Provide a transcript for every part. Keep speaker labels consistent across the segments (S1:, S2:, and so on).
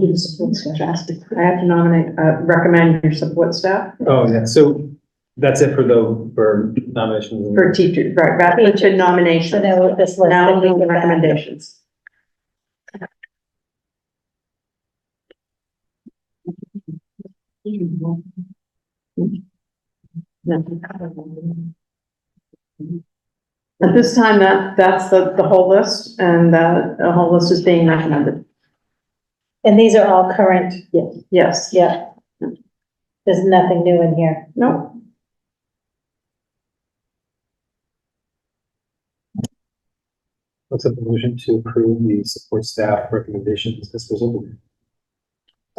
S1: Need the support staff. I have to nominate, uh, recommend your support staff
S2: Oh, yeah, so that's it for the, for nominations.
S1: for teachers, right, rather than
S3: So
S1: nomination.
S3: now this list.
S1: Now
S3: that we
S1: the
S3: give back.
S1: recommendations. At this time, that, that's the, the whole list, and that, the whole list is being recommended,
S3: And these are all current,
S1: yes.
S3: yeah. There's nothing new in here.
S1: No.
S2: What's the motion to approve the support staff recommendations as presented?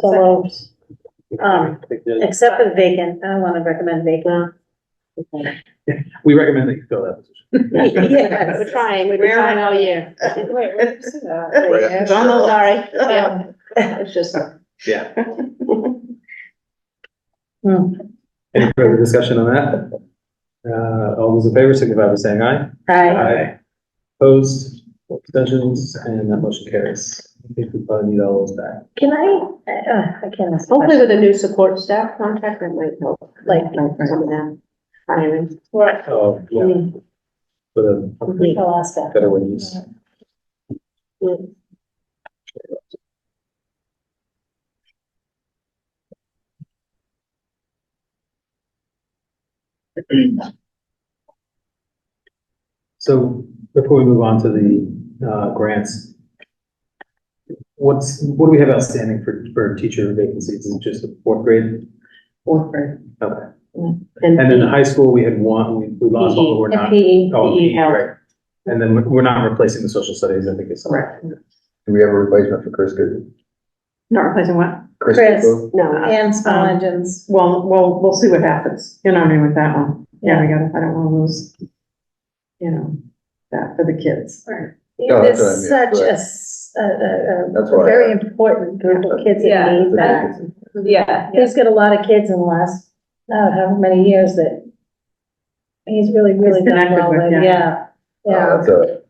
S3: So moved. Um,
S2: We
S3: Except for the vacant, I want to recommend vacant.
S2: recommend that you fill that position.
S3: Yes.
S4: We're trying, we've been
S1: Where-
S4: trying all year.
S1: It's on the list.
S3: Yeah.
S4: It's just,
S2: Yeah.
S3: Hmm,
S2: Any further discussion on that? Uh, all those in favor signify by saying aye.
S3: Hi.
S2: Aye. Opposed, abstentions, and that motion carries. I think we probably need all those back.
S3: Can I, uh, I can't. ask a
S4: hopefully
S3: question.
S4: with a new support staff contact, that might help, like,
S3: Like-
S4: some of them. hiring.
S2: Oh, yeah,
S4: Mm,
S2: for the
S3: I'll ask that.
S2: better way to use.
S4: mm.
S2: So before we move on to the uh, grants, what's, what do we have outstanding for, for teacher vacancies? Is it just the fourth grade?
S1: Fourth grade.
S2: Okay.
S4: And
S2: And then in high school, we had one, we, we lost one, but we're
S3: And
S2: not.
S3: PE,
S2: Oh,
S1: PE, health.
S2: right. And then we're- we're not replacing the social studies, I think it's.
S1: Correct.
S5: Do we have a replacement for Chris Goodwin?
S1: Not replacing what? Uh,
S3: Chris.
S5: Goodwin? Oh,
S1: Oh.
S4: no,
S3: and small engines.
S1: Well, well, we'll see what happens, you know, what I mean, with that one, yeah, we gotta, I don't wanna lose, you know, that for the kids.
S5: No, that's what I
S3: There's
S5: mean,
S3: such a
S5: correct.
S3: s- a, a- a
S5: That's why I-
S3: very important group of kids
S6: Yeah.
S3: that need that.
S6: Yeah,
S3: He's got a lot of kids in the last, uh, how many years that he's really, really done
S1: connected
S3: well
S1: with,
S3: with,
S1: yeah.
S3: yeah,
S5: Uh,
S3: yeah.
S5: That's a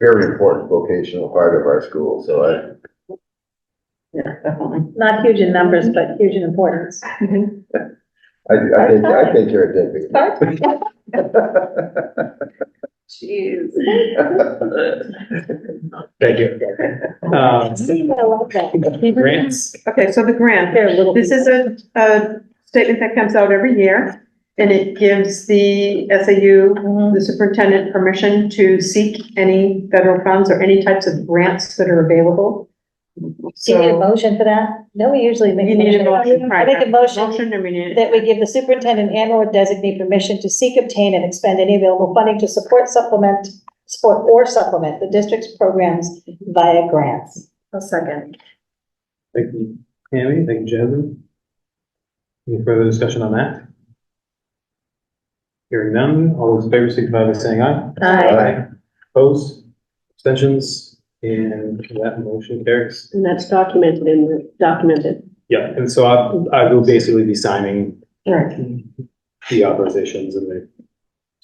S5: very important vocational part of our school, so I,
S1: Yeah, definitely.
S3: Not huge in numbers, but huge in importance.
S5: I, I think, I think you're a
S3: Part-time.
S5: dick.
S6: jeez.
S2: Thank you.
S3: I
S2: Um,
S3: love that.
S2: Grants,
S1: Okay, so the grant,
S3: They're little.
S1: this is a, a statement that comes out every year, and it gives the SAU,
S3: people.
S1: the superintendent, permission to seek any federal funds or any types of grants that are available.
S3: Do you need a
S1: So,
S3: motion for that? No, we usually make.
S1: you need a motion,
S3: I
S1: right?
S3: make a motion
S1: Motion, and we need.
S3: that we give the superintendent and or designate permission to seek, obtain, and expend any available funding to support supplement, support or supplement the district's programs via grants.
S6: A second.
S2: thank you, Tammy, thank you, Jasmine. Any further discussion on that? Hearing none, all those in favor signify by saying aye.
S3: Aye.
S2: Opposed, abstentions, and that motion carries.
S4: and that's documented in the, documented.
S2: Yeah, and so I, I will basically be signing
S1: Right,
S2: the authorizations and the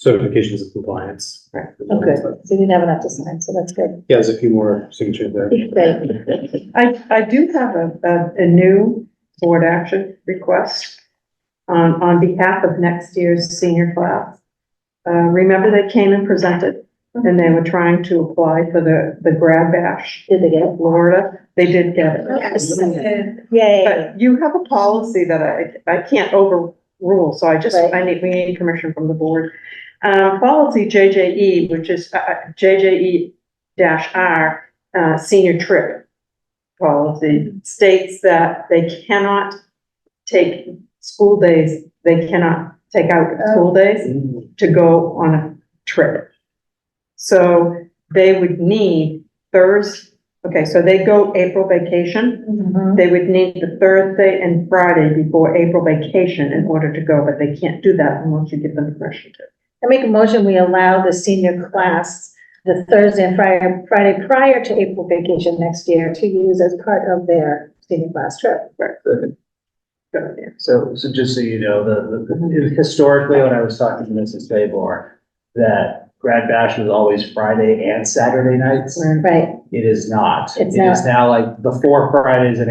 S2: certifications of compliance.
S1: Right.
S3: Oh, good. So you didn't have enough to sign, so that's good.
S2: Yeah, there's a few more signatures there.
S1: I, I do have a, a, a new board action request on, on behalf of next year's senior class. Uh, remember they came and presented, and they were trying to apply for the, the grad bash
S4: Did they get
S1: in Florida, they did get it.
S3: Yay.
S1: But you have a policy that I, I can't overrule, so I just,
S3: Right.
S1: I need, we need permission from the board. Um, policy JJE, which is, uh, uh, JJE dash R, uh, senior trip policy states that they cannot take school days, they cannot take out school days to go on a trip. So they would need Thurs, okay, so they go April vacation.
S3: Mhm.
S1: They would need the Thursday and Friday before April vacation in order to go, but they can't do that unless you give them permission to.
S3: I make a motion, we allow the senior class the Thursday and Friday, Friday prior to April vacation next year to use as part of their senior class trip.
S1: go there.
S7: So, so just so you know, the, the, historically, when I was talking to Mrs. Favor, that Grad Bash was always Friday and Saturday nights.
S3: right?
S7: It is not.
S3: It's
S7: It is now like the four Fridays in